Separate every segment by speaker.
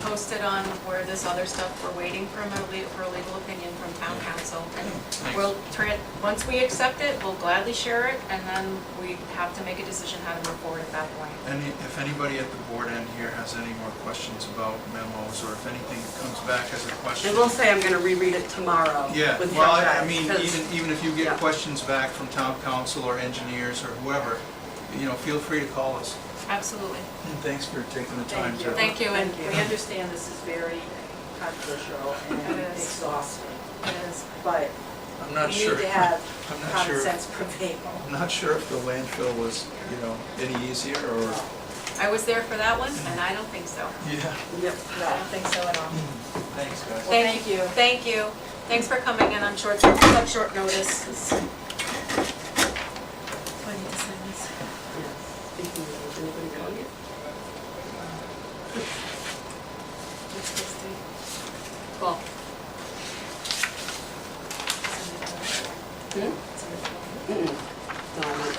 Speaker 1: posted on where this other stuff, we're waiting for a, le- for a legal opinion from town council. And
Speaker 2: Nice.
Speaker 1: we'll, tran- once we accept it, we'll gladly share it, and then we have to make a decision how to move forward at that point.
Speaker 2: Any, if anybody at the board end here has any more questions about memos, or if anything comes back as a question.
Speaker 3: I will say I'm gonna reread it tomorrow
Speaker 2: Yeah,
Speaker 3: with
Speaker 2: well,
Speaker 3: your
Speaker 2: I- I
Speaker 3: guys,
Speaker 2: mean,
Speaker 3: 'cause-
Speaker 2: even, even if you get
Speaker 3: Yeah.
Speaker 2: questions back from town council or engineers or whoever, you know, feel free to call us.
Speaker 1: Absolutely.
Speaker 2: And thanks for taking the time
Speaker 4: Thank
Speaker 2: to.
Speaker 4: you.
Speaker 1: Thank you, and
Speaker 4: We understand this is very controversial and
Speaker 1: It is.
Speaker 4: exhausting,
Speaker 1: it is.
Speaker 4: but
Speaker 2: I'm
Speaker 4: we
Speaker 2: not sure,
Speaker 4: need to have
Speaker 2: I'm not
Speaker 4: common
Speaker 2: sure.
Speaker 4: sense prevail.
Speaker 2: I'm not sure if the landfill was, you know, any easier or,
Speaker 1: I was there for that one, and I don't think so.
Speaker 2: yeah.
Speaker 3: Yep.
Speaker 1: I don't think so at all.
Speaker 2: Thanks, guys.
Speaker 1: Thank you. Thank you. Thanks for coming in on short, such short notice.
Speaker 3: Speaking of, anybody going yet?
Speaker 1: Cool.
Speaker 4: Hmm?
Speaker 3: Mm-mm. No, I went. I lost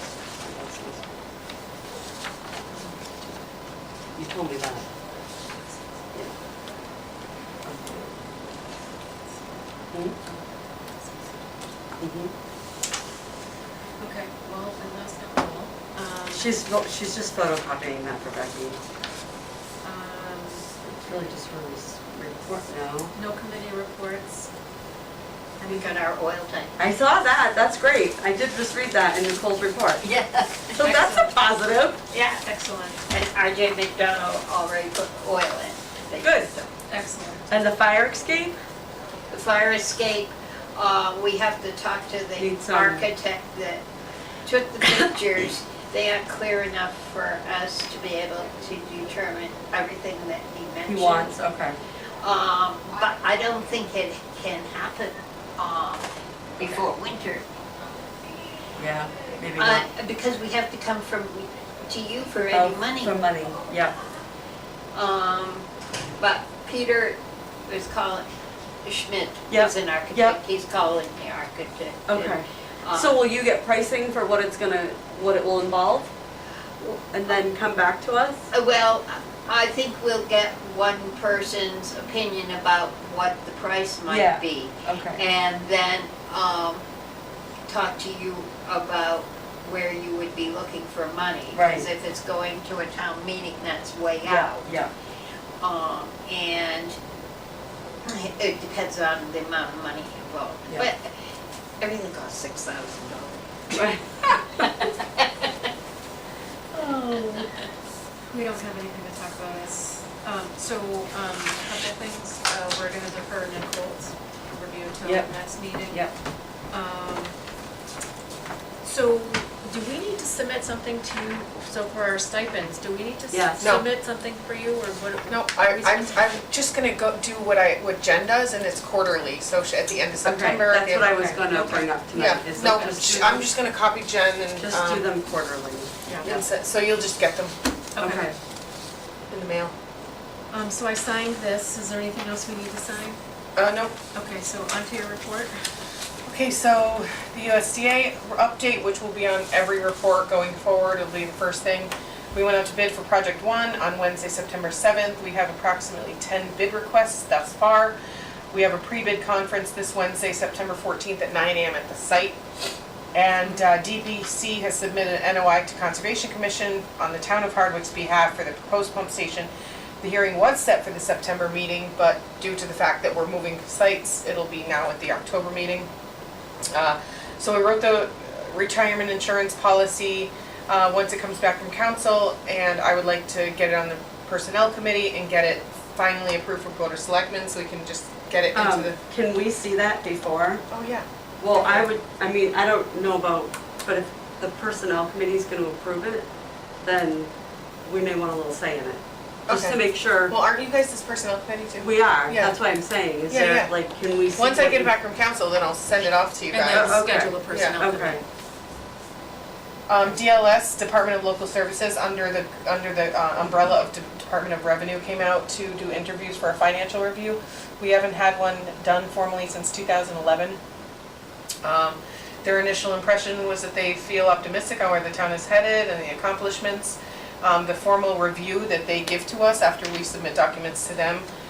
Speaker 3: this. You told me that. Mm-hmm.
Speaker 1: Okay, well, and last but not all, um,
Speaker 3: She's, vo- she's just photocopying that for Becky.
Speaker 1: um,
Speaker 3: It's really just her res- report now.
Speaker 1: no committee reports. I
Speaker 5: We
Speaker 1: think
Speaker 5: got our oil tank.
Speaker 3: I saw that, that's great. I did just read that in Nicole's report.
Speaker 5: Yeah,
Speaker 3: So that's a positive.
Speaker 5: yeah.
Speaker 1: Excellent,
Speaker 5: And RJ McDonald already put oil in.
Speaker 3: Good.
Speaker 1: excellent.
Speaker 3: And the fire escape?
Speaker 5: The fire escape, uh, we have to talk to the
Speaker 3: Need some-
Speaker 5: architect that took the pictures. They aren't clear enough for us to be able to determine everything that he mentioned.
Speaker 3: okay.
Speaker 5: Um, but I don't think it can happen, um, before winter.
Speaker 3: Yeah, maybe
Speaker 5: Uh,
Speaker 3: not.
Speaker 5: because we have to come from, to you for any
Speaker 3: Oh,
Speaker 5: money.
Speaker 3: For money, yeah.
Speaker 5: Um, but Peter was calling, Schmidt
Speaker 3: Yep,
Speaker 5: is an
Speaker 3: yep.
Speaker 5: architect, he's calling the architect. and,
Speaker 3: Okay.
Speaker 5: uh,
Speaker 3: So will you get pricing for what it's gonna, what it will involve? And then come back to us?
Speaker 5: uh, Well, I think we'll get one person's opinion about what the price
Speaker 3: Yeah.
Speaker 5: might be.
Speaker 3: Okay.
Speaker 5: And then, um, talk to you about where you would be looking for money.
Speaker 3: Right.
Speaker 5: Because if it's going to a town meeting, that's way
Speaker 3: Yeah,
Speaker 5: out.
Speaker 3: yeah.
Speaker 5: Um, and it depends on the amount of money involved.
Speaker 3: Yeah.
Speaker 5: But everything costs six thousand dollars.
Speaker 3: Right.
Speaker 1: We don't have anything to talk about this. Um, So, um, a couple things, Uh, we're going to defer Nicole's review till
Speaker 3: Yep.
Speaker 1: next meeting.
Speaker 3: Yep.
Speaker 1: Um, So, do we need to submit something to you, so for our stipends, do we need to
Speaker 3: Yeah.
Speaker 1: s-
Speaker 6: No.
Speaker 1: submit something for you, or what?
Speaker 6: No, I,
Speaker 1: we
Speaker 6: I'm,
Speaker 1: supposed to-
Speaker 6: I'm just gonna go do what I, what Jen does, and it's quarterly, so she- at the end of
Speaker 3: Okay,
Speaker 6: September.
Speaker 3: that's
Speaker 6: if-
Speaker 3: what I was gonna bring up
Speaker 6: Yeah,
Speaker 3: tonight. is
Speaker 6: no,
Speaker 3: like just
Speaker 6: sh-
Speaker 3: do
Speaker 6: I'm
Speaker 3: them-
Speaker 6: just gonna copy Jen and,
Speaker 3: Just do
Speaker 6: um,
Speaker 3: them quarterly.
Speaker 1: Yeah,
Speaker 6: and so, so you'll just get them
Speaker 1: okay.
Speaker 6: in the mail.
Speaker 1: Um, So I signed this, is there anything else we need to sign?
Speaker 6: Uh, no,
Speaker 1: Okay, so onto your report.
Speaker 6: Okay, so the USDA update, which will be on every report going forward, it'll be the first thing. We went out to bid for project one on Wednesday, September seventh. We have approximately ten bid requests thus far. We have a pre-bid conference this Wednesday, September fourteenth at nine AM at the site. And uh, DBC has submitted an NOI to Conservation Commission on the town of Hardwick's behalf for the proposed pump station. The hearing was set for the September meeting, but due to the fact that we're moving sites, it'll be now at the October meeting. Uh, So we wrote the retirement insurance policy, uh, once it comes back from council, and I would like to get it on the personnel committee and get it finally approved from Board of Selectmen, so we can just get it into
Speaker 3: Um,
Speaker 6: the,
Speaker 3: Can we see that before?
Speaker 6: oh, yeah.
Speaker 3: Well, I would, I mean, I don't know about, but if the personnel committee's gonna approve it, then we may want a little say in it. Just to
Speaker 6: Okay.
Speaker 3: make sure
Speaker 6: Well, aren't you guys this personnel committee too?
Speaker 3: we are,
Speaker 6: Yeah.
Speaker 3: that's what I'm saying, is
Speaker 6: Yeah,
Speaker 3: there,
Speaker 6: yeah.
Speaker 3: like, can we see?
Speaker 6: Once I
Speaker 3: what
Speaker 6: get it
Speaker 3: we-
Speaker 6: back from council, then I'll send it off to you
Speaker 1: And then
Speaker 6: guys.
Speaker 3: Okay.
Speaker 1: schedule a personnel.
Speaker 3: Okay,
Speaker 6: Um, DLS, Department of Local Services, under the, under the uh, umbrella of De- Department of Revenue, came out to do interviews for a financial review. We haven't had one done formally since 2011. Um, Their initial impression was that they feel optimistic on where the town is headed and the accomplishments. Um, The formal review that they give to us after we submit documents to them